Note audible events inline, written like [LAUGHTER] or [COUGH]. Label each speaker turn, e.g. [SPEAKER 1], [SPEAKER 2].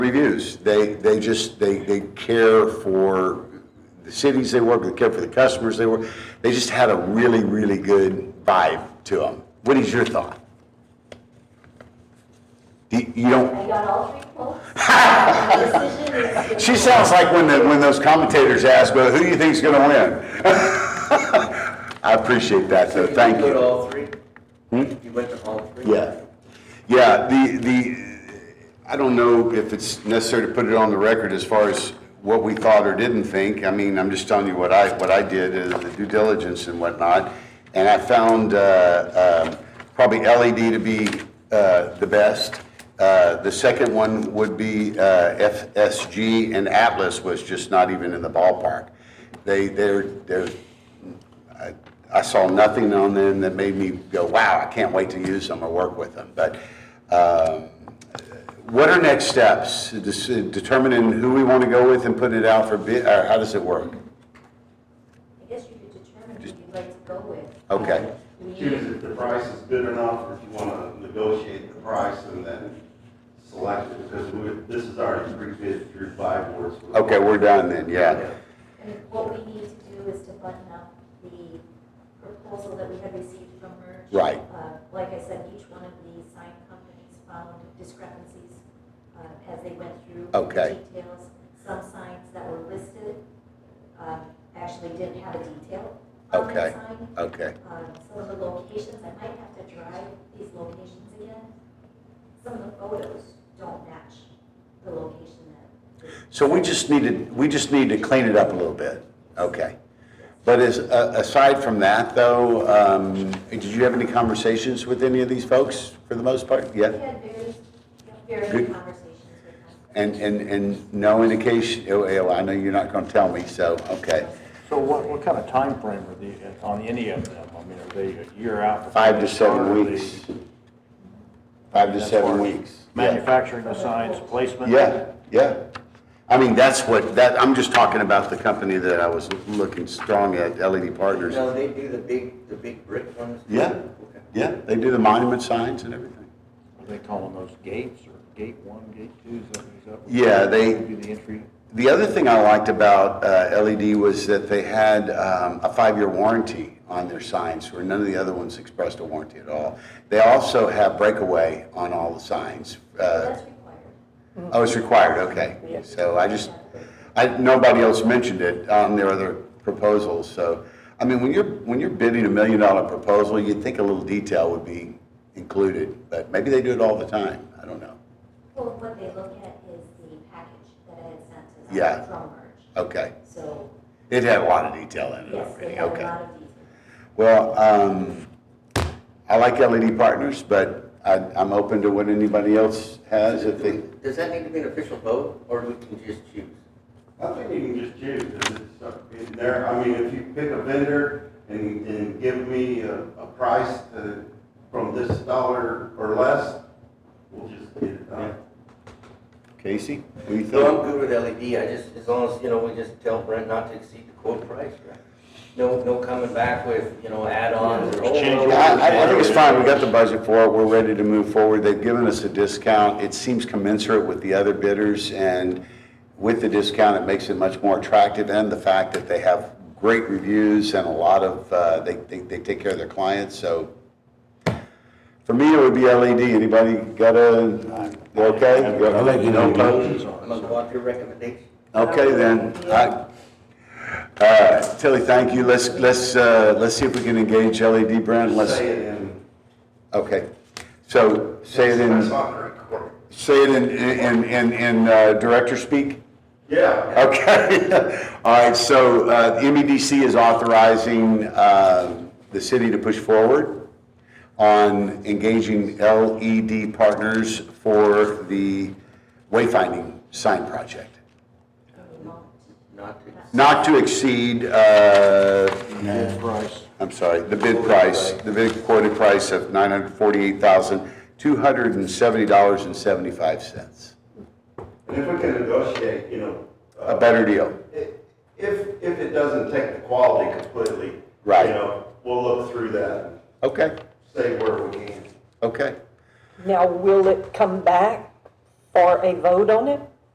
[SPEAKER 1] reviews. They, they just, they, they care for the cities they work, they care for the customers they work. They just had a really, really good vibe to them. What is your thought? Do You you don't,
[SPEAKER 2] I got all three
[SPEAKER 1] [LAUGHS]
[SPEAKER 2] quotes. The decision is to-
[SPEAKER 1] she sounds like when the, when those commentators ask, well, who do you think's gonna win? [LAUGHS] I appreciate that though, thank you. Hmm?
[SPEAKER 3] You went to all three? You went to all three?
[SPEAKER 1] Yeah. Yeah, the, the, I don't know if it's necessary to put it on the record as far as what we thought or didn't think. I mean, I'm just telling you what I, what I did, uh, the due diligence and whatnot. And I found uh, um, probably LED to be uh, the best. Uh, The second one would be uh, FSG, and Atlas was just not even in the ballpark. They, they're, they're I saw nothing on them that made me go, wow, I can't wait to use them or work with them. But um, what are next steps? Dis- Determining who we want to go with and putting it out for bid, or how does it work?
[SPEAKER 2] I guess you could determine who you'd like to go with.
[SPEAKER 1] Okay,
[SPEAKER 2] We-
[SPEAKER 4] choose if the price is good enough, or if you want to negotiate the price and then select it, because we- this is already pre-bid through five boards.
[SPEAKER 1] okay, we're done then, yeah.
[SPEAKER 2] And what we need to do is to button up the proposal that we had received from Merge.
[SPEAKER 1] Right.
[SPEAKER 2] Uh, Like I said, each one of the sign companies found discrepancies uh, as they went through. the
[SPEAKER 1] Okay.
[SPEAKER 2] Details. Some signs that were listed uh, actually didn't have a detail on
[SPEAKER 1] Okay.
[SPEAKER 2] that sign.
[SPEAKER 1] Okay,
[SPEAKER 2] um, some of the locations, I might have to drive these locations again. Some of the photos don't match the location that.
[SPEAKER 1] so we just needed, we just need to clean it up a little bit, okay. But as, a- aside from that though, um, did you have any conversations with any of these folks for the most part?
[SPEAKER 2] We
[SPEAKER 1] Yeah?
[SPEAKER 2] had various, various
[SPEAKER 1] Good.
[SPEAKER 2] conversations with them.
[SPEAKER 1] And, and, and no indication, oh, oh, I know you're not going to tell me, so, okay.
[SPEAKER 5] So what, what kind of time frame are the, on any of them? I mean, are they a year out? before
[SPEAKER 1] Five to
[SPEAKER 5] they
[SPEAKER 1] seven
[SPEAKER 5] start? Are they-
[SPEAKER 1] weeks. Five to
[SPEAKER 5] That's
[SPEAKER 1] seven
[SPEAKER 5] far.
[SPEAKER 1] weeks. Yeah.
[SPEAKER 5] Manufacturing the signs, placement?
[SPEAKER 1] Yeah, yeah. I mean, that's what, that, I'm just talking about the company that I was looking strong at, LED Partners.
[SPEAKER 3] No, they do the big, the big brick ones?
[SPEAKER 1] Yeah.
[SPEAKER 3] Okay.
[SPEAKER 1] Yeah, they do the monument signs and everything.
[SPEAKER 5] Are they calling those gates or gate one, gate two? Is that, is that? what-
[SPEAKER 1] Yeah, they-
[SPEAKER 5] Would be the entry?
[SPEAKER 1] The other thing I liked about uh, LED was that they had um, a five-year warranty on their signs, where none of the other ones expressed a warranty at all. They also have breakaway on all the signs. uh,
[SPEAKER 2] That's required.
[SPEAKER 1] Oh, it's required, okay. So I just, I, nobody else mentioned it on their other proposals, so, I mean, when you're, when you're bidding a million dollar proposal, you'd think a little detail would be included, but maybe they do it all the time, I don't know.
[SPEAKER 2] Well, what they look at is the package that I had sent to
[SPEAKER 1] Yeah.
[SPEAKER 2] them from Merge.
[SPEAKER 1] Okay,
[SPEAKER 2] So,
[SPEAKER 1] it had a lot of detail in it
[SPEAKER 2] yes, they
[SPEAKER 1] already,
[SPEAKER 2] had a
[SPEAKER 1] okay.
[SPEAKER 2] lot of detail.
[SPEAKER 1] Well, um, I like LED Partners, but I, I'm open to what anybody else has if they,
[SPEAKER 3] Does that need to be an official vote, or we can just choose?
[SPEAKER 4] I think you can just choose, and it's up in there, I mean, if you pick a vendor and, and give me a, a price to, from this dollar or less, we'll just get it done.
[SPEAKER 1] Casey, what do you
[SPEAKER 3] No, I'm
[SPEAKER 1] think?
[SPEAKER 3] good with LED, I just, as long as, you know, we just tell Brent not to exceed the quote price, right? No, no coming back with, you know, add-ons or.
[SPEAKER 5] Change
[SPEAKER 3] oh,
[SPEAKER 5] it.
[SPEAKER 1] I, I- I think it's fine, we got the budget for it, we're ready to move forward, they've given us a discount, it seems commensurate with the other bidders, and with the discount, it makes it much more attractive, and the fact that they have great reviews and a lot of, uh, they, they, they take care of their clients, so. For me, it would be LED, anybody got a, you okay? No opposed?
[SPEAKER 3] I'm gonna go off your recommendation.
[SPEAKER 1] Okay, then, I, uh, Tilly, thank you, let's, let's, uh, let's see if we can engage LED brand, let's.
[SPEAKER 4] Say it in.
[SPEAKER 1] Okay, so say it
[SPEAKER 4] That's
[SPEAKER 1] in,
[SPEAKER 4] on the record.
[SPEAKER 1] say it in, in, in, in uh, director speak?
[SPEAKER 4] Yeah.
[SPEAKER 1] Okay, [LAUGHS] all right, so uh, the MEDC is authorizing uh, the city to push forward on engaging LED partners for the wayfinding sign project.
[SPEAKER 3] Not to exceed.
[SPEAKER 1] Not to exceed, uh,
[SPEAKER 5] Full price.
[SPEAKER 1] I'm sorry, the bid price, the bid quoted price of $948,270.75.
[SPEAKER 4] And if we can negotiate, you know.
[SPEAKER 1] A
[SPEAKER 4] uh,
[SPEAKER 1] better deal.
[SPEAKER 4] i- If, if it doesn't take the quality completely.
[SPEAKER 1] Right.
[SPEAKER 4] You know, we'll look through that, and
[SPEAKER 1] Okay,
[SPEAKER 4] say where we can.
[SPEAKER 1] okay.
[SPEAKER 6] Now, will it come back for a vote on it?